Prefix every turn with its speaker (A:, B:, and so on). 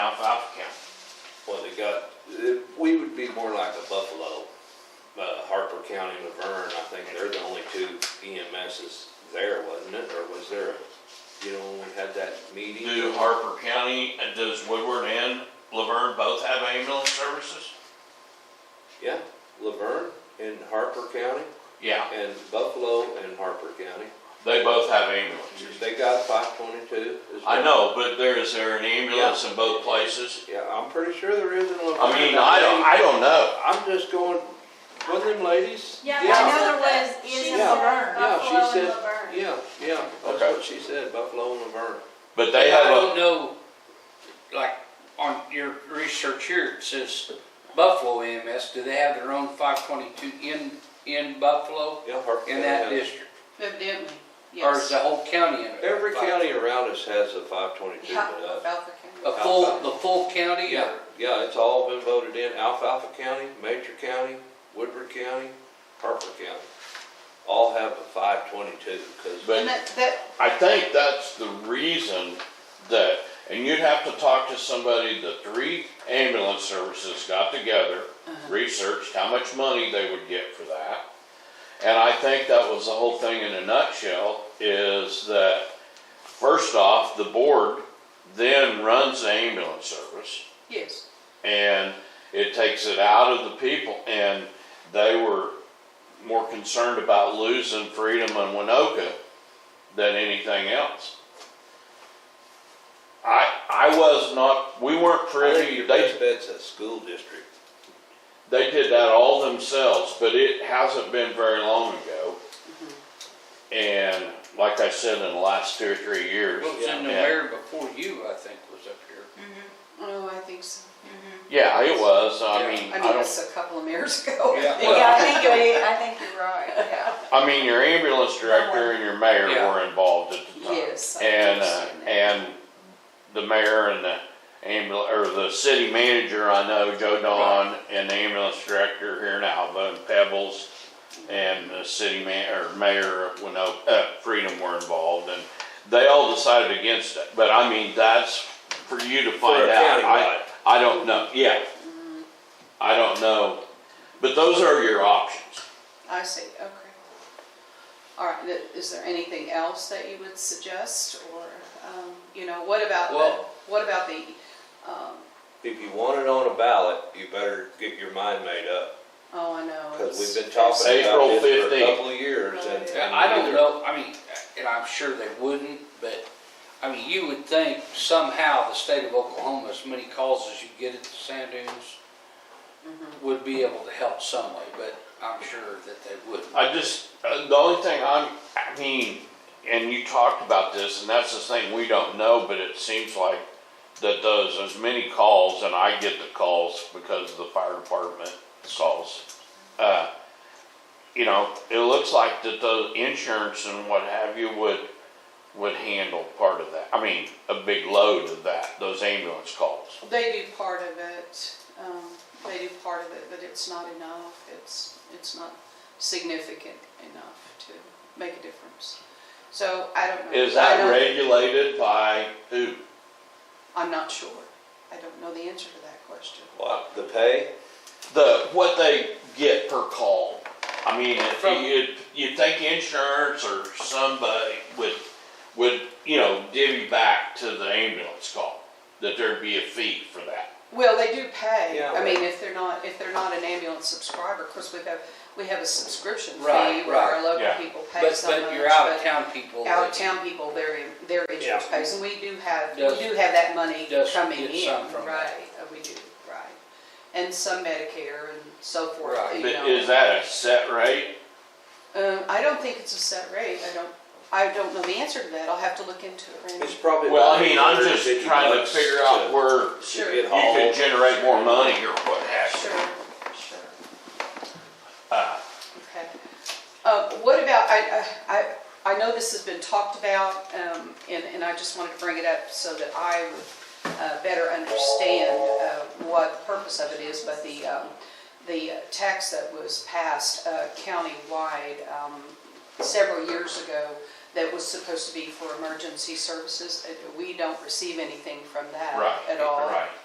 A: uh, they're the only two EMSs there, wasn't it, or was there, a- you know, when we had that meeting?
B: Do Harper County, uh, does Woodward and Laverne both have ambulance services?
A: Yeah, Laverne and Harper County,
B: Yeah,
A: and Buffalo and Harper County,
B: they both have ambulances.
A: they got five twenty-two as well.
B: I know, but there, is there an ambulance in both places?
A: Yeah, I'm pretty sure there is in Laverne.
B: I mean, I don't, I don't know.
A: I'm just going, wasn't them ladies?
C: Yeah,
A: Yeah.
C: I know there was, is
A: She
C: in
A: said
C: Laverne.
A: Yeah, she
C: Buffalo and
A: said-
C: Laverne.
A: Yeah, yeah, that's
B: Okay.
A: what she said, Buffalo and Laverne.
B: But they
D: I
B: have
D: don't know, like, on your research here, it says Buffalo EMS, do they have their own five twenty-two in, in Buffalo?
A: Yeah, Harper County.
D: In that
A: has-
D: district?
E: Evidently,
D: Or is
E: yes.
D: the whole county in it?
A: Every county around us has a five twenty-two but us.
E: Alpha
D: A
E: County.
D: full, the full county?
A: Yeah, yeah, it's all been voted in, Alfalfa County, Major County, Woodward County, Harper County. All have a five twenty-two, because,
B: But-
E: And that, that,
B: I think that's the reason that, and you'd have to talk to somebody, the three ambulance services got together, researched how much money they would get for that. And I think that was the whole thing in a nutshell, is that, first off, the board then runs the ambulance service
E: yes,
B: and it takes it out of the people. And they were more concerned about losing freedom in Winoka than anything else. I, I was not, we weren't
A: I think
B: privy,
A: your
B: they,
A: best bet's a school district.
B: they did that all themselves, but it hasn't been very long ago.
E: Mm-hmm.
B: And like I said, in the last two or three years.
D: What was in the
B: yeah.
D: mayor before you, I think, was up here.
E: oh, I think so.
B: Yeah, it was,
D: Yeah.
B: I mean,
E: I
B: I
E: mean,
B: don't,
E: it's a couple of years ago.
D: Yeah.
C: Yeah, I think you're, I think you're right, yeah.
B: I mean, your ambulance director and your mayor
D: Yeah.
B: were involved at the time.
E: Yes. I
B: And,
E: do
B: uh,
E: see that.
B: and the mayor and the ambul, or the city manager, I know, Joe Don, and the ambulance director here in Alva and Pebbles, and the city man, or mayor of Winona, uh, Freedom were involved, and they all decided against it, but I mean, that's for you to find
A: a
B: out. I,
A: countywide.
B: I don't know, yeah. I don't know, but those are your options.
E: I see, okay. All right, th- is there anything else that you would suggest, or, um, you know, what about, the-
D: Well-
E: what about the, um,
A: If you want it on a ballot, you better get your mind made up,
E: oh, I know.
A: because
E: it's-
A: we've been talking
B: April
A: about this for a
B: 15th.
A: couple of years, and.
D: Yeah, I don't know, I mean, and I'm sure they wouldn't, but, I mean, you would think somehow the state of Oklahoma, as many calls as you get at the sand dunes, would be able to help some way, but I'm sure that they wouldn't.
B: I just, uh, the only thing I'm, I mean, and you talked about this, and that's the thing we don't know, but it seems like that does as many calls, and I get the calls because of the fire department calls. Uh, you know, it looks like that the insurance and what have you would, would handle part of that. I mean, a big load of that, those ambulance calls.
E: They do part of it, um, they do part of it, but it's not enough, it's, it's not significant enough to make a difference. So I don't know.
B: Is
E: I
B: that
E: don't-
B: regulated by who?
E: I'm not sure, I don't know the answer to that question.
A: What, the pay?
B: the, what they get per call. I mean, if
D: From-
B: you, you think insurance or somebody would, would, you know, divvy back to the ambulance call, that there'd be a fee for that.
E: Well, they do pay,
A: Yeah.
E: I mean, if they're not, if they're not an ambulance subscriber, of course, we have, we have a subscription fee
D: Right,
E: where our
D: right.
E: local
B: Yeah.
E: people pay
D: But,
E: so much.
D: but your out-of-town
E: but
D: people, they
E: out-of-town people, their, their insurance
A: Yeah.
E: pays, and we do have, we
D: Does-
E: do have that money
D: does
E: coming
D: get
E: in,
D: some from that.
E: right, uh, we do, right. And some Medicare and so forth,
D: Right.
E: you
B: But
E: know.
B: Is that a set rate?
E: Um, I don't think it's a set rate, I don't, I don't know the answer to that, I'll have to look into it,
A: It's
E: Randy.
A: probably.
B: Well, I
A: about
B: mean, I'm just
A: 150
B: trying to
A: bucks
B: figure out where
E: Sure,
A: Get
E: sure,
B: you
A: hauled.
B: could generate more money or what have you.
E: sure,
B: Uh,
E: okay. Uh, what about, I, I, I I know this has been talked about, um, and, and I just wanted to bring it up so that I would, uh, better understand, uh, what the purpose of it is, but the, um, the tax that was passed, uh, countywide, um, several years ago that was supposed to be for emergency services, uh, we don't receive anything from that
B: Right,
E: at all.
B: right.